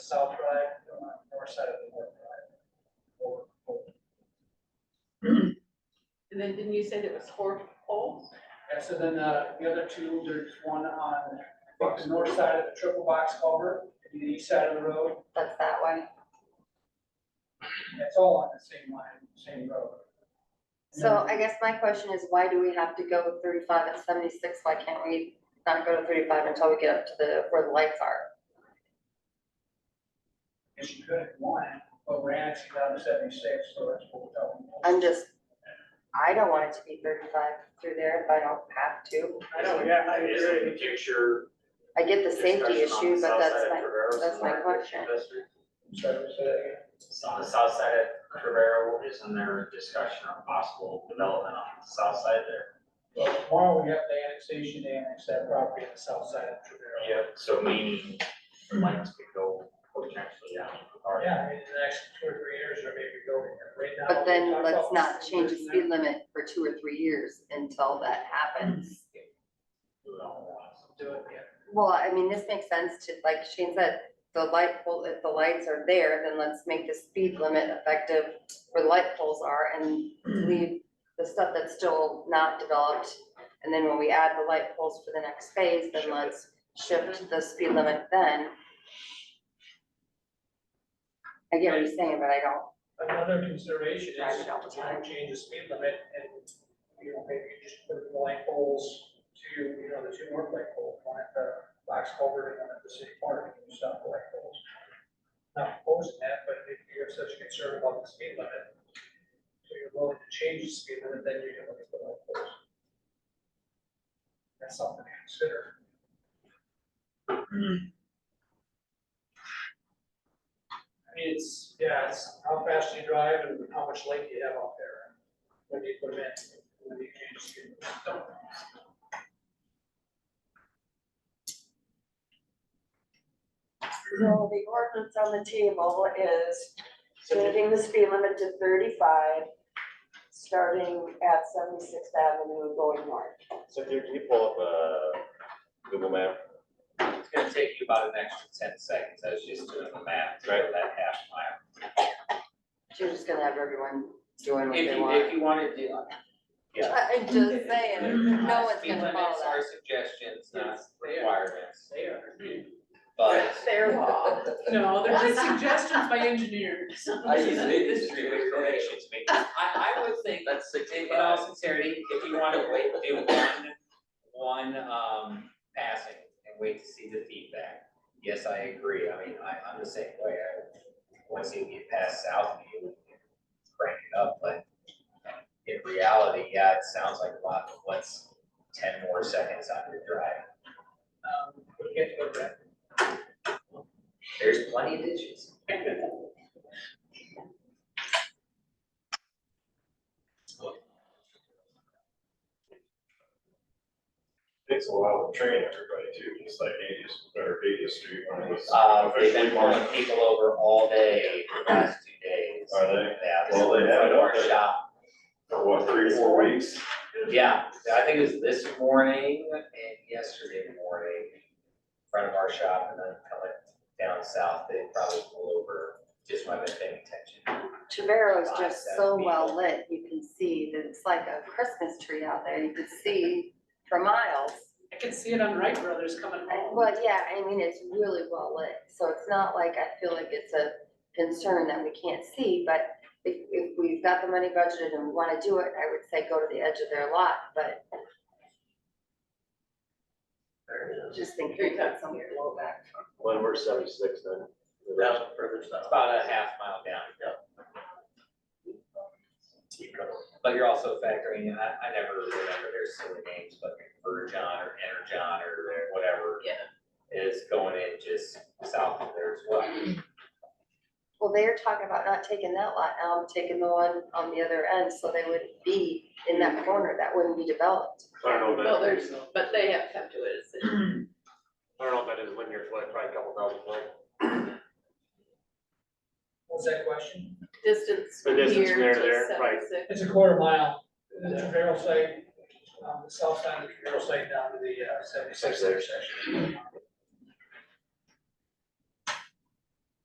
South Drive, on the north side of the North Drive. Over- over. And then didn't you say there was four poles? And so then uh, the other two, there's one on the north side of the triple box culvert, and the east side of the road, That's that one. It's all on the same line, same road. So I guess my question is, why do we have to go thirty-five and seventy-six? Why can't we not go to thirty-five until we get up to the, where the lights are? Because you could have won, but we're annexing down to seventy-six, so that's what we're telling you. I'm just, I don't want it to be thirty-five through there if I don't have to. I know, yeah, I Is it the picture? I get the safety discussion on issue, the but south that's side of my, Trevorro's that's and my Market question. District? Sorry, say that again. On the south side of Trevero, isn't there a discussion on possible development on the south side there? Well, tomorrow we have the annexation, they annex that property on the south side of Trevero. Yep. So meaning, plans could go potentially down. or- Yeah, in the next two or three years, or maybe go right now. But we then talked let's about not change the this speed limit for two or three years until that happens. Do it all at once. now. Do it, yeah. Well, I mean, this makes sense to, like Shane said, the light pole, if the lights are there, then let's make the speed limit effective where the light poles are and leave the stuff that's still not developed. And then when we add the light poles for the next phase, then let's shift the speed limit then. I get what you're saying, but I don't, Another consideration Drive is it all the time. time change the speed limit and, you know, maybe you just put the light poles to, you know, the two north light poles, one at the box culvert and one at the city park, and you stop the light poles. Not opposing that, but if you have such concern about the speed limit, so you're willing to change the speed limit, then you can look at the light poles. That's something to consider. I mean, it's, yeah, it's how fast you drive and how much light you have out there. When you put them in, when you change the speed limit. So the ordinance on the table is changing the speed limit to thirty-five, starting at Seventy-Sixth Avenue going north. So here, can you pull up a Google map? It's gonna take you about an extra ten seconds, I was just doing the math, right, that half mile. you're just gonna have everyone doing what If they you, want. if you wanna do, uh, yeah. I- I'm just saying, no one's Speed gonna follow limits that. are suggestions, not Yes, they are. requirements, They are. but Their law. No, they're just suggestions by engineers. I use industry information. Recommendations made. I, I would think, That's in in all sincerity, if you wanna wait, do one, one, um, passing and wait to see the feedback. Yes, I agree, I mean, I, I'm the same way, I, once you get past Southview, you crank it up, but in reality, yeah, it sounds like a lot, but what's ten more seconds on your drive? Um, we'll get to it. There's plenty of ditches. Takes a while to train everybody too, just like eighties, or eighties street when it was. Uh, they've been officially pulling marked. people over all day for the last two days. Are they? Yeah, this Well, they had it up there. workshop, For what, three, four weeks? yeah, I think it was this morning and yesterday morning, in front of our shop, and then coming down south, they probably pulled over, just when I've been paying attention. Trevorrow is Five, just seven so people. well lit, you can see, that it's like a Christmas tree out there, you can see for miles. I can see it on Wright Brothers coming home. Well, yeah, I mean, it's really well lit, so it's not like I feel like it's a concern that we can't see, but if, if we've got the money budgeted and we wanna do it, I would say go to the edge of their lot, but just think we've got some blowback. When we're seventy-six then. further south. About a half mile down, But you're also factoring, in I, I never remember their silly names, but Virgin or Energon or whatever. Yeah. Is going in just south of there as well. Well, they're talking about not taking that lot, now I'm taking the one on the other end, so they would be in that corner, that wouldn't be developed. I don't know, Well, that there's, but they have come to it as a I don't know if that is linear foot, probably a couple thousand foot. What was that question? distance The from here distance from there to to there, right. 76. It's a quarter mile, the uh, Trevero site, um, the south side of the Trevero site down to the seventy-six intersection.